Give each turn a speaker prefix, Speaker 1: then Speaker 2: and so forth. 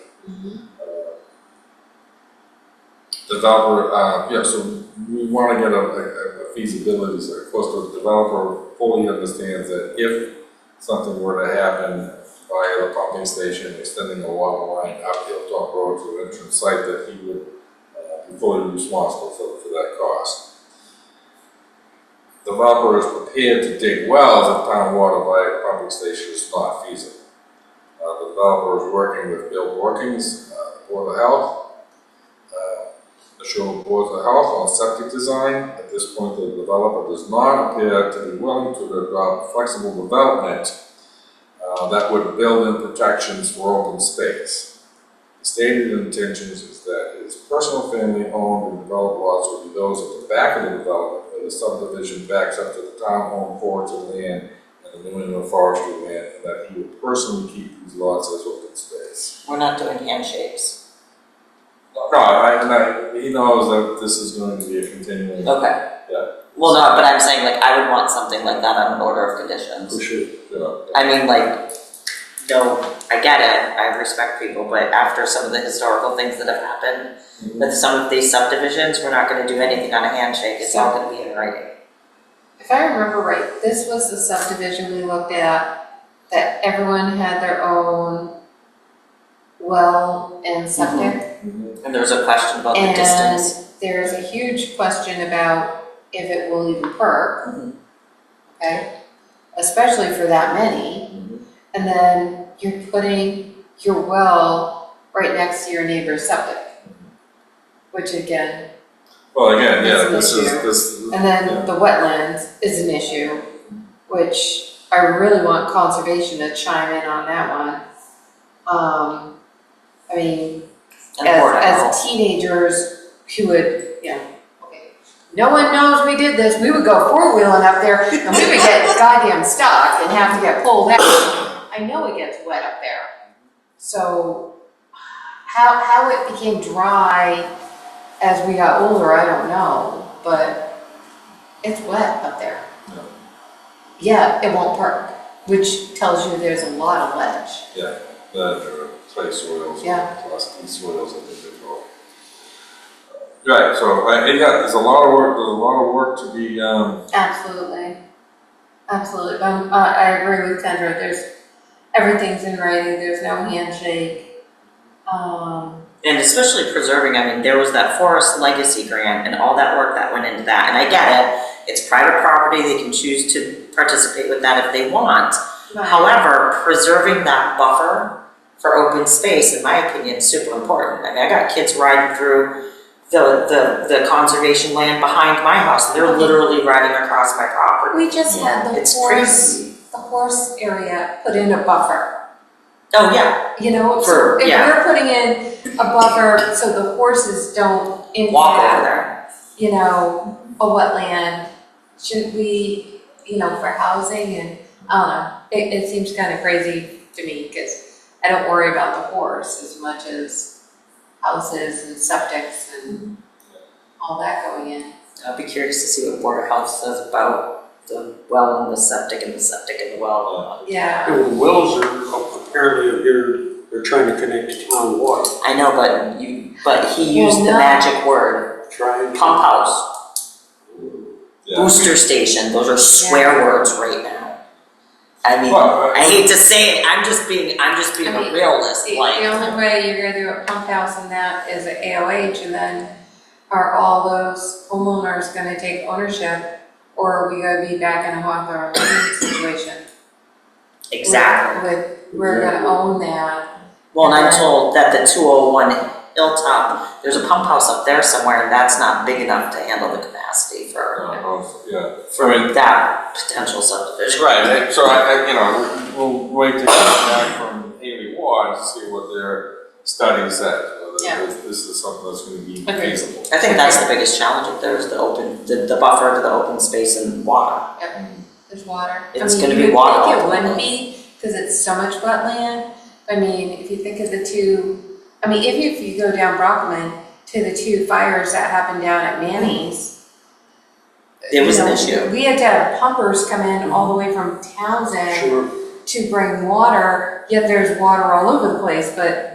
Speaker 1: developer, uh, yeah, so we wanna get a, a a feasibility, so of course, the developer fully understands that if something were to happen via the pumping station, extending the water line up the Hilltop Road to the entrance site, that he would uh, be fully responsible for, for that cost. Developer is prepared to dig wells if town water via pumping station is not feasible. Uh, the developer is working with Bill Borkins, uh, Board of Health, uh, the Shore Board of Health on septic design. At this point, the developer does not appear to be willing to develop flexible development uh, that would build in protections for open space. The Stated intentions is that his personal family owned and developed lots would be those at the back of the development, where the subdivision backs up to the town home forage of land and the New England forestry land, and that he would personally keep these lots as open space.
Speaker 2: We're not doing handshakes.
Speaker 1: No, I, and I, he knows that this is going to be a continuing.
Speaker 2: Okay.
Speaker 1: Yeah.
Speaker 2: Well, no, but I'm saying like I would want something like that on an order of conditions.
Speaker 1: sure. Yeah,
Speaker 2: I mean, like, no, I get it, I respect people, but after some of the historical things that have happened with some of these subdivisions, we're not gonna do anything on a handshake, it's all gonna be in writing.
Speaker 3: If I remember right, this was the subdivision we looked at, that everyone had their own well and septic.
Speaker 1: Mhm.
Speaker 2: And there was a question about the distance.
Speaker 3: And there's a huge question about if it will even perk.
Speaker 2: Mhm.
Speaker 3: Okay, especially for that many.
Speaker 1: Mhm.
Speaker 3: And then you're putting your well right next to your neighbor's septic. Which again,
Speaker 1: Well, again, yeah,
Speaker 3: That's
Speaker 1: this
Speaker 3: an
Speaker 1: is,
Speaker 3: issue.
Speaker 1: this,
Speaker 3: And
Speaker 1: Yeah.
Speaker 3: then the wetlands is an issue, which I really want conservation to chime in on that one. Um, I mean,
Speaker 2: And the Board of
Speaker 3: as, as
Speaker 2: Health.
Speaker 3: teenagers who would, yeah, okay. No one knows we did this, we would go four-wheeling up there and we would get goddamn stuck and have to get pulled out. I know it gets wet up there. So how, how it became dry as we got older, I don't know, but it's wet up there.
Speaker 1: Yeah.
Speaker 3: Yeah, it won't perk, which tells you there's a lot of ledge.
Speaker 1: the clay soils,
Speaker 3: Yeah.
Speaker 1: classic soils, I think they call. it. Right, so, I, and yeah, there's a lot of work, there's a lot of work to be, um,
Speaker 3: Absolutely. Absolutely, um, I, I agree with Kendra, there's, everything's in writing, there's no handshake. Um,
Speaker 2: And especially preserving, I mean, there was that forest legacy grant and all that work that went into that, and I get it. It's private property, they can choose to participate with that if they want,
Speaker 3: but
Speaker 2: However, preserving that buffer for open space, in my opinion, is super important. I mean, I got kids riding through the, the, the conservation land behind my house, and they're literally riding across my property.
Speaker 3: we just had the
Speaker 2: It's
Speaker 3: horse,
Speaker 2: crazy.
Speaker 3: the horse area put in a buffer,
Speaker 2: Oh, yeah,
Speaker 3: you know, so
Speaker 2: For-
Speaker 3: if
Speaker 2: yeah.
Speaker 3: we're putting in a buffer so the horses don't
Speaker 2: walk over
Speaker 3: impact,
Speaker 2: there.
Speaker 3: you know, a wetland, should we, you know, for housing and, I don't know, it, it seems kind of crazy to me, cause I don't worry about the horse as much as houses and septics and all that going in.
Speaker 2: I'll be curious to see what Board of Health says about the well and the septic and the septic and the well.
Speaker 3: Yeah,
Speaker 4: The wells are apparently here, they're trying to connect to town water,
Speaker 2: I know, but you, but he used the
Speaker 3: Well, no.
Speaker 2: magic word,
Speaker 4: trying.
Speaker 2: pump house,
Speaker 1: yeah.
Speaker 2: booster station, those are swear words right now. I mean.
Speaker 1: Well, uh,
Speaker 2: I hate to say it, I'm just being, I'm just being
Speaker 3: I mean,
Speaker 2: a realist,
Speaker 3: the, the
Speaker 2: like,
Speaker 3: only way you're gonna do a pump house and that is an AOH and then are all those homeowners gonna take ownership? Or are we gonna be back in a Hawthorne Lane situation?
Speaker 2: exactly.
Speaker 3: With, we're gonna own that,
Speaker 2: Well, and I'm told that the two oh one Hilltop, there's a pump house up there somewhere, and that's not big enough to handle the capacity for,
Speaker 1: uh, of- Yeah, I mean,
Speaker 2: for that potential subdivision.
Speaker 1: Right, and so I, I, you know, we'll wait to hear back from Haley Ward to see what their study says,
Speaker 3: Yeah.
Speaker 1: whether this, this is something that's gonna be
Speaker 3: Okay.
Speaker 1: feasible.
Speaker 2: I think that's the biggest challenge, if there's the open, the, the buffer to the open space and water.
Speaker 3: there's water. I
Speaker 2: It's
Speaker 3: mean,
Speaker 2: gonna be
Speaker 3: you would
Speaker 2: water
Speaker 3: think
Speaker 2: all
Speaker 3: It
Speaker 2: over.
Speaker 3: would be, cause it's so much wetland, I mean, if you think of the two, I mean, if you, if you go down Brockman to the two fires that happened down at Manny's.
Speaker 2: It was
Speaker 3: you
Speaker 2: an
Speaker 3: know,
Speaker 2: issue.
Speaker 3: We had to have pumpers come in all the way from Townsend
Speaker 4: Sure.
Speaker 3: to bring water, yet there's water all over the place, but